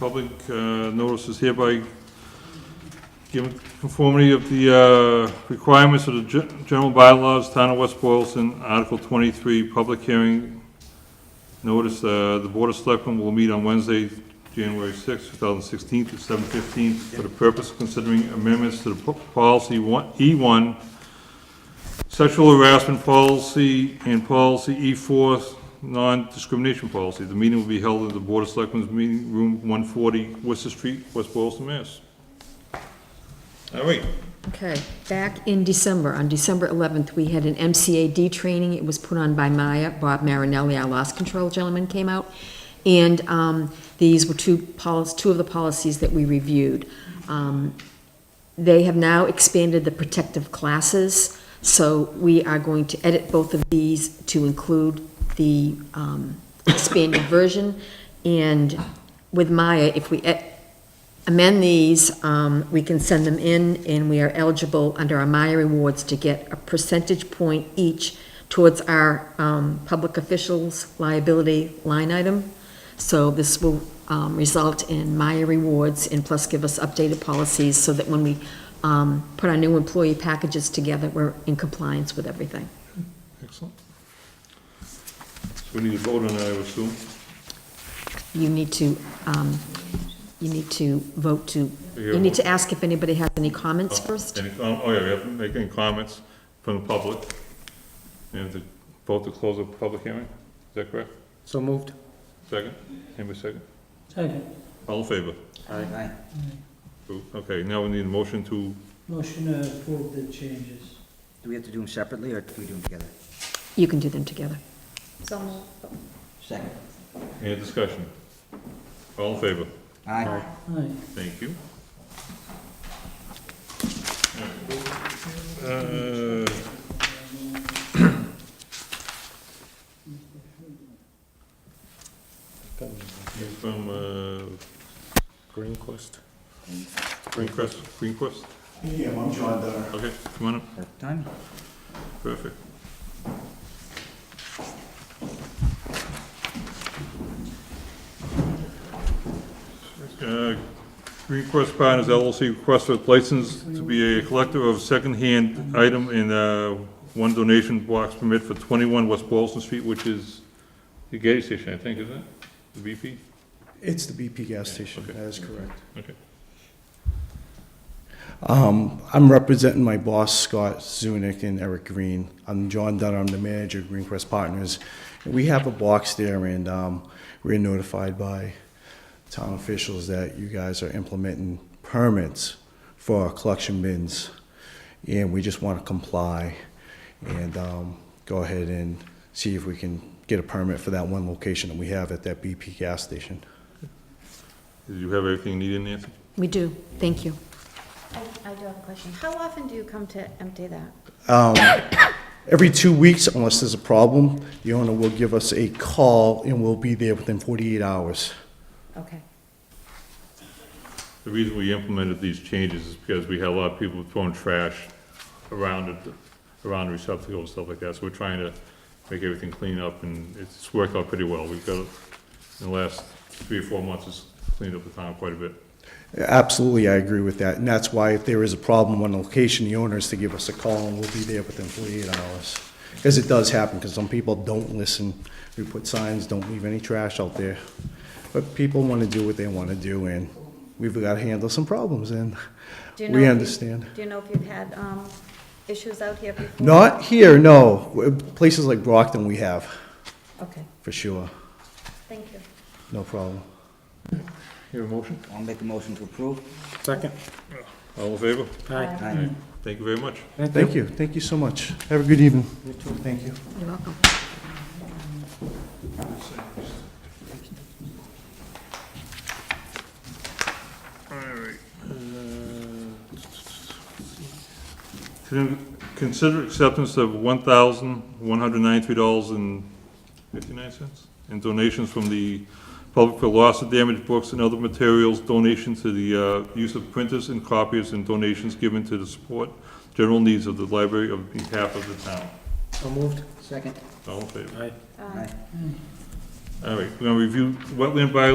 Public uh, notice is hereby given conformity of the uh, requirements of the gen- general bylaws, Town of West Boylston, Article 23, public hearing. Notice, uh, the Board of Selectmen will meet on Wednesday, January 6, 2016, at 7:15 for the purpose of considering amendments to the po- policy one- E1, sexual harassment policy, and policy E4, non-discrimination policy. The meeting will be held at the Board of Selectmen's Meeting Room 140, Worcester Street, West Boylston, Mass. All right, Okay, back in December, on December 11th, we had an MCAD training. It was put on by Maya, Bob Marinelli, our loss control gentleman came out. And um, these were two policies, two of the policies that we reviewed. Um, They have now expanded the protective classes, so we are going to edit both of these to include the um, expanded version. And with Maya, if we e- amend these, um, we can send them in, and we are eligible under our Maya rewards to get a percentage point each towards our um, public officials liability line item. So this will um, result in Maya rewards and plus give us updated policies so that when we um, put our new employee packages together, we're in compliance with everything. excellent. So we need to vote on that, I would assume. You need to, um, you need to vote to, you need to ask if anybody has any comments first. Any, oh, oh, yeah, we have to make any comments from the public. And to vote to close the public hearing, is that correct? So moved. Second? Anybody second? Second, All in favor? Aye. Approved. Okay, now we need a motion to, motion to approve the changes. Do we have to do them separately, or do we do them together? You can do them together. Second. any discussion? All in favor? Aye. Aye. Thank you. Uh, you From, uh, Greenquist. Greencrest, Greenquist? Yeah, I'm John Dunner. Okay, come on up, Perfect Time? perfect. Uh, Green Quest Partners LLC requests a license to be a collector of secondhand item in uh, one donation box permit for 21 West Boylston Street, which is the gas station, I think, isn't it? The BP? It's the BP gas station, okay. that is correct. Okay. Um, I'm representing my boss, Scott Zunick and Eric Green. I'm John Dunner, I'm the manager of Greencrest Partners. And We have a box there, and um, we're notified by town officials that you guys are implementing permits for our collection bins, and we just want to comply and um, go ahead and see if we can get a permit for that one location that we have at that BP gas station. Did you have everything needed, Nancy? We do, thank you. I I do have a question. How often do you come to empty that? Every two weeks, unless there's a problem, the owner will give us a call and we'll be there within 48 hours. Okay. The reason we implemented these changes is because we had a lot of people throwing trash around it, around the receptacle and stuff like that, so we're trying to make everything clean up, and it's worked out pretty well. We've got, in the last three or four months, it's cleaned up the town quite a bit. Absolutely, I agree with that. And that's why if there is a problem on location, the owner is to give us a call and we'll be there within 48 hours. Because it does happen, because some people don't listen. We put signs, don't leave any trash out there. But people want to do what they want to do and we've got to handle some problems and Do you know if we you- understand. Do you know if you've had um, issues out here before? Not here, no. Places like Brockton, we have, Okay, for sure. thank you. No problem. Your motion? I'll make a motion to approve. Second. All in favor? Aye. Aye. Thank you very much. Thank you, thank you so much. Have a good evening. Thank you. You're welcome. Uh, Con- Consider acceptance of one thousand, one hundred ninety-three dollars and fifty-nine cents in donations from the public for loss of damaged books and other materials, donations to the, uh, use of printers and copiers, and donations given to the support general needs of the library on behalf of the town. So moved. Second. All in favor? Aye. Um, Aye. All right, we're gonna review wetland bylaw